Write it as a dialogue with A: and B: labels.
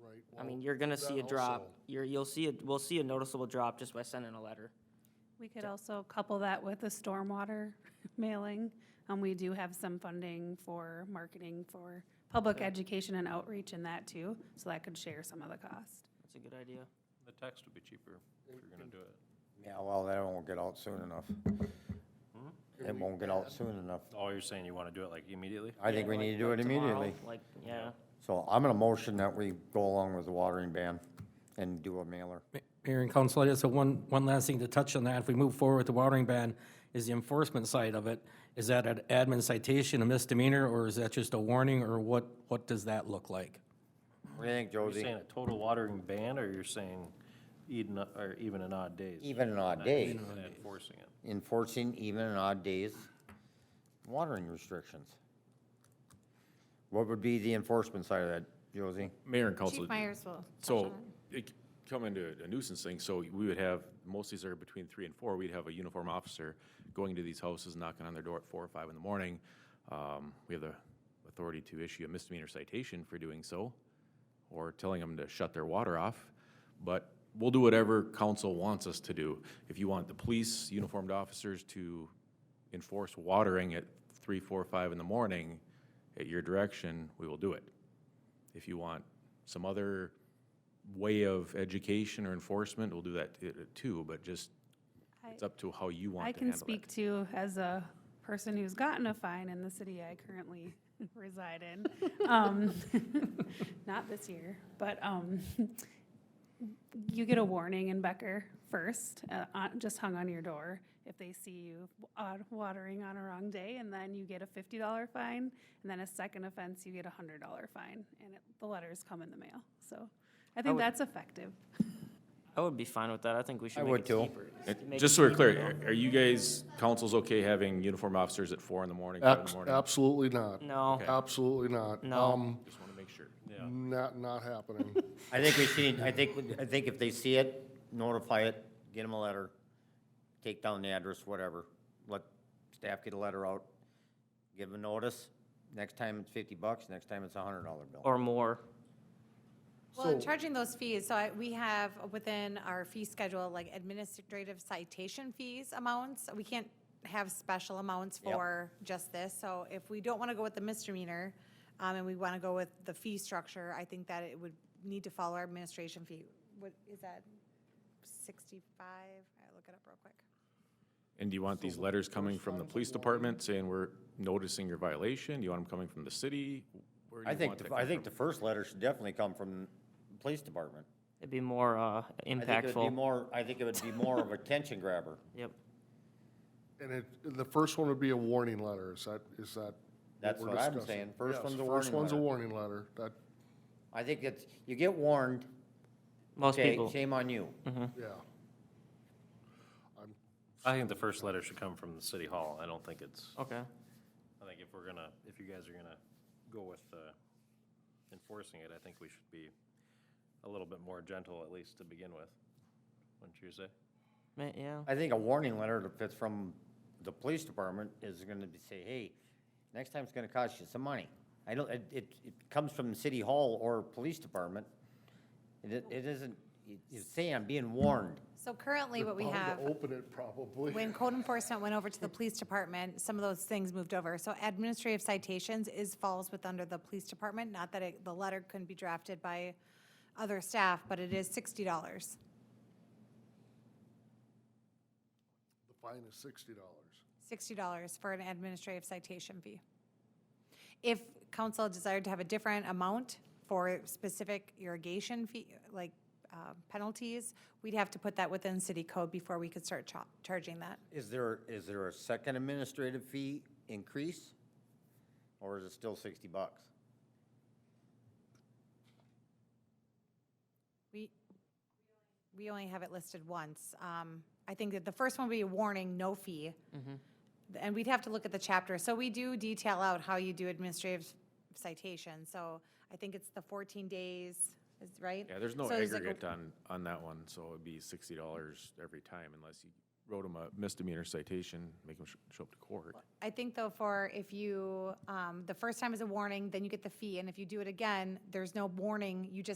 A: we.
B: I mean,
A: won't
B: you're gonna
A: do that
B: see a drop,
A: also.
B: you're, you'll see, a we'll see a noticeable drop just by sending a letter.
C: We could also couple that with a stormwater mailing. Um, we do have some funding for marketing for public education and outreach in that too, so that could share some of the cost.
B: That's a good idea.
D: The text would be cheaper if you're gonna do it.
E: Yeah, well, that won't get out soon enough.
B: Hmm?
A: Can
E: It
A: we
E: won't get out
A: add-
E: soon enough.
D: Oh, you're saying you wanna do it like immediately?
E: I think we need to do it immediately.
B: Like, yeah,
E: So I'm gonna motion that we go along with the watering ban and do a mailer.
F: Ma- Mayor and council, I just have one, one last thing to touch on that. If we move forward with the watering ban, is the enforcement side of it, is that an admin citation, a misdemeanor, or is that just a warning, or what, what does that look like?
E: What do you think,
D: You're
E: Josie?
D: saying a total watering ban, or you're saying even, or even an odd days?
E: Even an odd
D: Not
E: day,
D: even Enforcing it.
E: enforcing even an odd days, watering restrictions. What would be the enforcement side of that, Josie?
G: Mayor and council.
H: Chief Myers will. touch on
G: So
H: it.
G: it c- come into a nuisance thing, so we would have, most of these are between three and four, we'd have a uniform officer going to these houses, knocking on their door at four or five in the morning. Um, we have the authority to issue a misdemeanor citation for doing so, or telling them to shut their water off. But we'll do whatever council wants us to do. If you want the police, uniformed officers to enforce watering at three, four, five in the morning, at your direction, we will do it. If you want some other way of education or enforcement, we'll do that t- too, but just, it's
C: I-
G: up to how you want
C: I
G: to handle it.
C: can speak to, as a person who's gotten a fine in the city I currently reside in, um, not this year, but um, you get a warning in Becker first, uh, on- just hung on your door, if they see you wa- watering on a wrong day, and then you get a $50 fine, and then a second offense, you get a $100 fine, and it- the letters come in the mail. So I think
B: would-
C: that's effective.
B: I would be fine with that, I think we
E: I
B: should make
E: would
B: it
E: too.
B: cheaper.
G: And
B: Make
G: Just
B: it
G: so we're
B: cheaper, you know?
G: clear, are you guys, council's okay having uniform officers at four in the morning, five in the
A: Abs-
G: morning?
A: Absolutely not.
B: No. Okay.
A: Absolutely not.
B: No.
A: Um,
G: Just want to make sure.
A: Not, not happening.
E: I think we see, I think, I think if they see it, notify it, get them a letter, take down the address, whatever. Let staff get a letter out, give them notice. Next time it's fifty bucks, next time it's a hundred dollar bill.
B: Or more,
H: Well, in charging those fees, so I, we have within our fee schedule, like administrative citation fees amounts. We can't have special amounts
E: Yep.
H: for just this. So if we don't want to go with the misdemeanor, um, and we want to go with the fee structure, I think that it would need to follow our administration fee. What, is that sixty-five? I'll look it up real quick.
G: And do you want these letters coming from the police department saying we're noticing your violation? Do you want them coming from the city? Where do
E: I
G: you
E: think,
G: want that
E: the-
G: coming
E: I think
G: from?
E: the first letter should definitely come from the police department.
B: it'd be more, uh,
E: I think it would be
B: impactful,
E: more, I think it would be more of a attention grabber.
B: yep.
A: And it, the first one would be a warning letter, is that, is that?
E: That's
A: we're
E: what I'm
A: discussing?
E: saying. First
A: Yes,
E: one's a
A: First
E: warning
A: one's a
E: letter.
A: warning letter, that,
E: I think it's, you get warned,
B: Most
E: okay,
B: people,
E: shame on you.
B: Hmm.
A: yeah.
D: I think the first letter should come from the city hall. I don't think it's,
B: okay,
D: I think if we're gonna, if you guys are gonna go with, uh, enforcing it, I think we should be a little bit more gentle, at least to begin with. Wouldn't you say?
B: Ma- yeah,
E: I think a warning letter if it's from the police department is gonna be say, hey, next time it's gonna cost you some money. I don't, it, it, it comes from city hall or police department. It, it isn't, you- you say I'm being warned.
H: So currently what we
A: Bound to
H: have.
A: Open it probably.
H: When code enforcement went over to the police department, some of those things moved over. So administrative citations is, falls with under the police department, not that it, the letter couldn't be drafted by other staff, but it is sixty dollars.
A: The fine is sixty dollars.
H: sixty dollars for an administrative citation fee. If council desired to have a different amount for specific irrigation fee, like uh, penalties, we'd have to put that within city code before we could start cha- charging that.
E: Is there, is there a second administrative fee increase? Or is it still sixty bucks?
H: We, we only have it listed once. Um, I think that the first one would be a warning, no fee. And we'd have to look at the chapter. So we do detail out how you do administrative citation. So I think it's the 14 days, is right?
G: Yeah, there's no
H: So like a-
G: aggregate on, on that one, so it'd be sixty dollars every time unless you wrote them a misdemeanor citation, make them show up to court.
H: I think though for if you, um, the first time is a warning, then you get the fee. And if you do it again, there's no warning, you just